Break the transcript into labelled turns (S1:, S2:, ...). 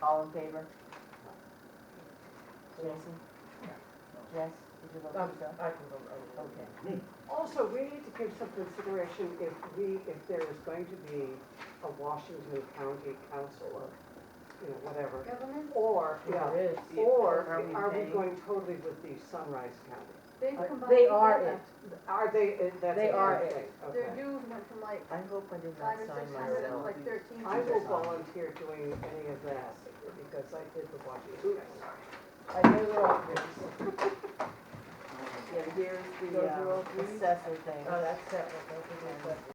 S1: All in favor? Jason? Jess, did you vote
S2: Um,
S1: yourself?
S2: I can vote, I will.
S1: Okay.
S2: Also, we need to give some consideration if we, if there is going to be a Washington County Council or, you know, whatever.
S3: Government,
S2: Or, yeah,
S4: There is.
S2: or
S4: Are we
S2: are we
S4: paying?
S2: going totally with the Sunrise County?
S3: they've combined.
S1: They are
S3: together.
S1: it.
S2: Are they, uh, that's.
S1: They are
S2: another
S1: it.
S2: thing,
S3: Their
S2: Okay.
S3: dues went from like
S4: I hope I did not
S3: five or
S4: sign
S3: six hundred up to
S4: myself.
S3: like thirteen
S2: I will
S3: hundred.
S2: volunteer doing any of that because I did the Washington County.
S1: I know they're all threes. Yeah, here's the
S4: Those are all
S1: um,
S4: threes?
S1: assessor thing.
S4: Oh, that's that one, don't forget that.